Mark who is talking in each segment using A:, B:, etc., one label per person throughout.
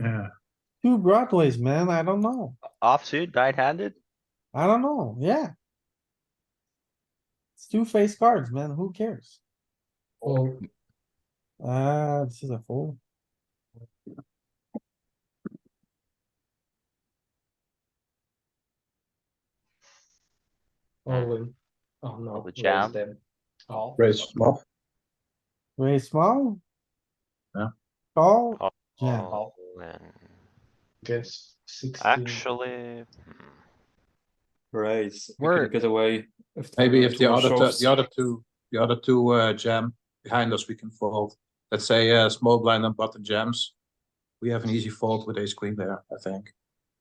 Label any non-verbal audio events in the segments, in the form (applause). A: Yeah,
B: Two broadways, man, I don't know.
C: Offsuit, nine handed?
B: I don't know, yeah. It's two face cards, man, who cares?
D: Well,
B: Ah, this is a fold.
D: only, oh no.
C: the
D: raise
C: jam.
D: them. Oh.
E: Raise small.
B: Raise small.
A: Yeah.
B: Call,
C: Call.
B: yeah,
D: Oh. Guess sixteen.
C: Actually, hmm,
F: Raise. We
E: Word.
F: can get away. If there
E: Maybe
G: Uh,
F: are
E: if the
F: two
E: other,
F: shoves.
E: tu- the other two, the other two, uh, jam behind us, we can fold. Let's say, uh, small blind and button jams. We have an easy fold with ace queen there, I think.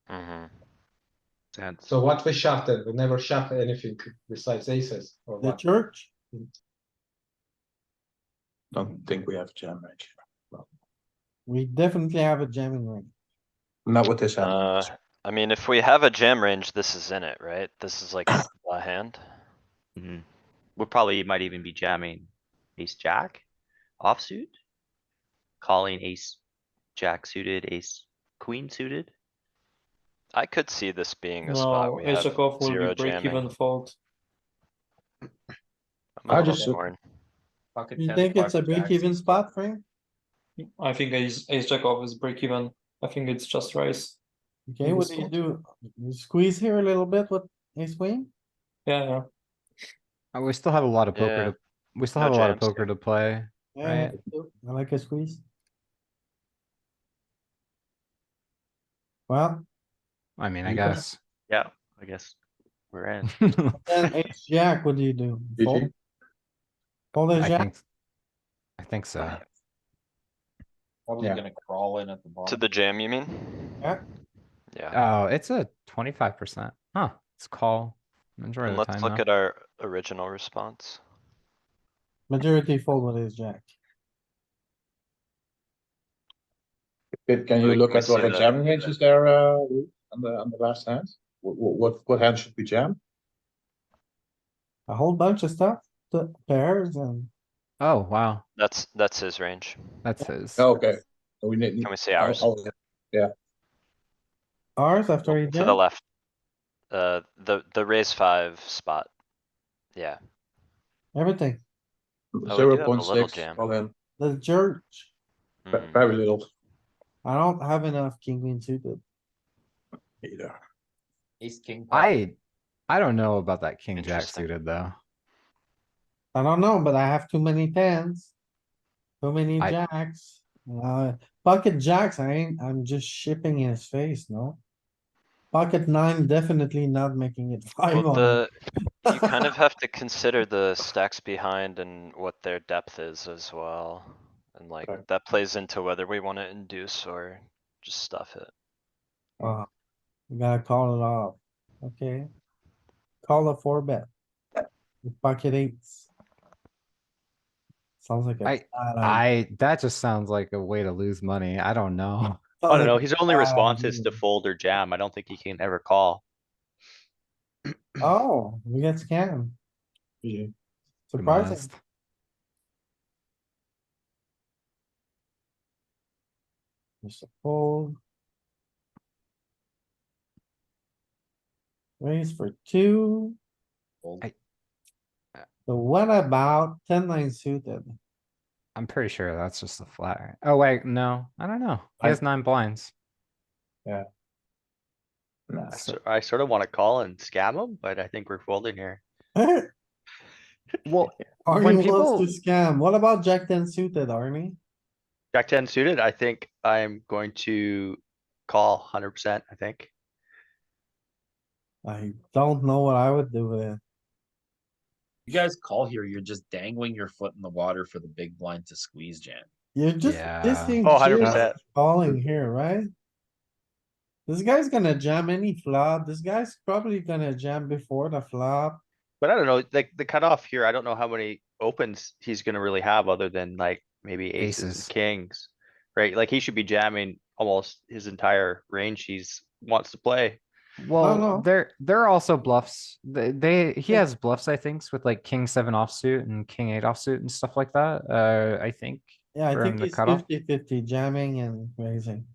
G: mm-hmm.
C: mhm.
A: sense.
D: So what we shove then? We never shove anything besides aces or
B: the
D: what?
B: church,
E: Don't think we have a jam range.
B: we definitely have a jamming ring.
E: Not with this hand.
H: Uh, I mean, if we have a jam range, this is in it, right? This
E: (coughs)
H: is like a hand.
C: mhm. We probably might even be jamming ace jack offsuit. Calling ace jack suited, ace queen suited.
H: I could see this being a spot
F: No,
H: we
F: ace
H: have
F: of off will
H: zero
F: be break even
H: jamming.
F: fold.
H: I'm
E: I
H: a little
E: just look-
H: torn.
B: You think it's a break even spot, Frank?
F: I think ace, ace jack off is break even. I think it's just raise.
B: Okay, what do you do? You squeeze here a little bit with ace queen?
F: Yeah, yeah.
I: Uh, We still have a lot of
H: Yeah.
I: poker, to we still
H: No
I: have a lot of
H: jams.
I: poker to play.
B: Yeah,
I: Right.
B: I like a squeeze. Well,
I: I mean, I
E: You gotta-
I: guess.
C: Yeah, I guess we're in.
B: then ace jack, what do you do?
E: GG.
B: Fold? Fold a
I: I
B: jack,
I: think, I think so.
G: Probably
E: Yeah.
G: gonna crawl in at the bottom.
H: To the jam, you mean?
B: Yeah.
H: Yeah,
I: Oh, it's a twenty-five percent. Huh, it's call. Majority
H: and
I: of the
H: let's
I: time
H: look
I: though.
H: at our original response.
B: majority fold with ace jack.
E: Can, can you
H: Like,
E: look
H: we
E: at what
H: see
E: the
H: that-
E: jamming range is there, uh, Lou, on the, on the last hand? What, what, what hand should we jam?
B: A whole bunch of stuff, the pairs and
I: Oh, wow,
H: That's, that's his range.
I: that's his.
E: Oh, Okay, So we need.
H: Can we see ours?
E: Oh, yeah.
B: ours after he
H: To the
B: jam.
H: left. Uh, the, the raise five spot. Yeah,
B: everything,
H: Oh, have a
E: Zero
H: little
E: point six,
H: jam.
E: all in,
B: the church.
E: Ve-
H: mhm.
E: very little
B: I don't have enough king queen suited.
E: either.
G: Ace king.
I: I, I don't know about that king jack
H: Interesting.
I: suited though.
B: I don't know, but I have too many tens. Too many
I: I-
B: jacks, uh, pocket jacks, I ain't, I'm just shipping his face, no? Pocket nine definitely not making it (laughs) five
H: Well,
B: on,
H: the, you kind of have to consider the stacks behind and what their depth is as well. And like,
E: Right.
H: that plays into whether we wanna induce or just stuff it.
B: uh, you gotta call it off, okay? Call a four bet. with Pocket eights. Sounds like a.
I: I-
B: bad idea.
I: I, that just sounds like a way to lose money. I don't know.
C: I don't
B: Sounds
C: know,
B: like
C: his only
B: a bad
C: response is to
B: idea.
C: fold or jam. I don't think he can ever call.
B: (laughs) Oh, we get scammed,
E: Yeah.
I: to be
B: surprising,
I: honest.
B: just a fold. Raise for two.
G: Fold.
I: I-
B: So what about ten nine suited?
I: I'm pretty sure that's just a flat. right? Oh wait, no, I don't know. He
E: I-
I: has nine blinds.
E: Nah.
C: I sor- I sort of wanna call and scam him, but I think we're folding here.
I: Well,
B: (laughs) Arnie
I: people-
B: wants to scam. What about jack ten suited, Arnie?
C: Jack ten suited, I think I'm going to call hundred percent, I think.
B: I don't know what I would do with it.
G: You guys call here, you're just dangling your foot in the water for the big blind to squeeze jam.
B: You're just
I: Yeah.
B: dissing.
C: Oh, 100%.
B: Calling here, right? This guy's gonna jam any flop. This guy's probably gonna jam before the flop.
C: But I don't know, like the cutoff here, I don't know how many opens he's gonna really have other than like maybe aces
I: Aces.
C: and kings. Right? Like he should be jamming almost his entire range he's wants to play.
B: no.
I: Well, there there are also bluffs. They, they he
B: Yeah.
I: has bluffs, I think, with like king seven offsuit and king eight offsuit and stuff like that. Uh, I think
B: Yeah, I
I: From
B: think
I: the
B: it's
I: cutoff?
B: fifty fifty jamming and raising.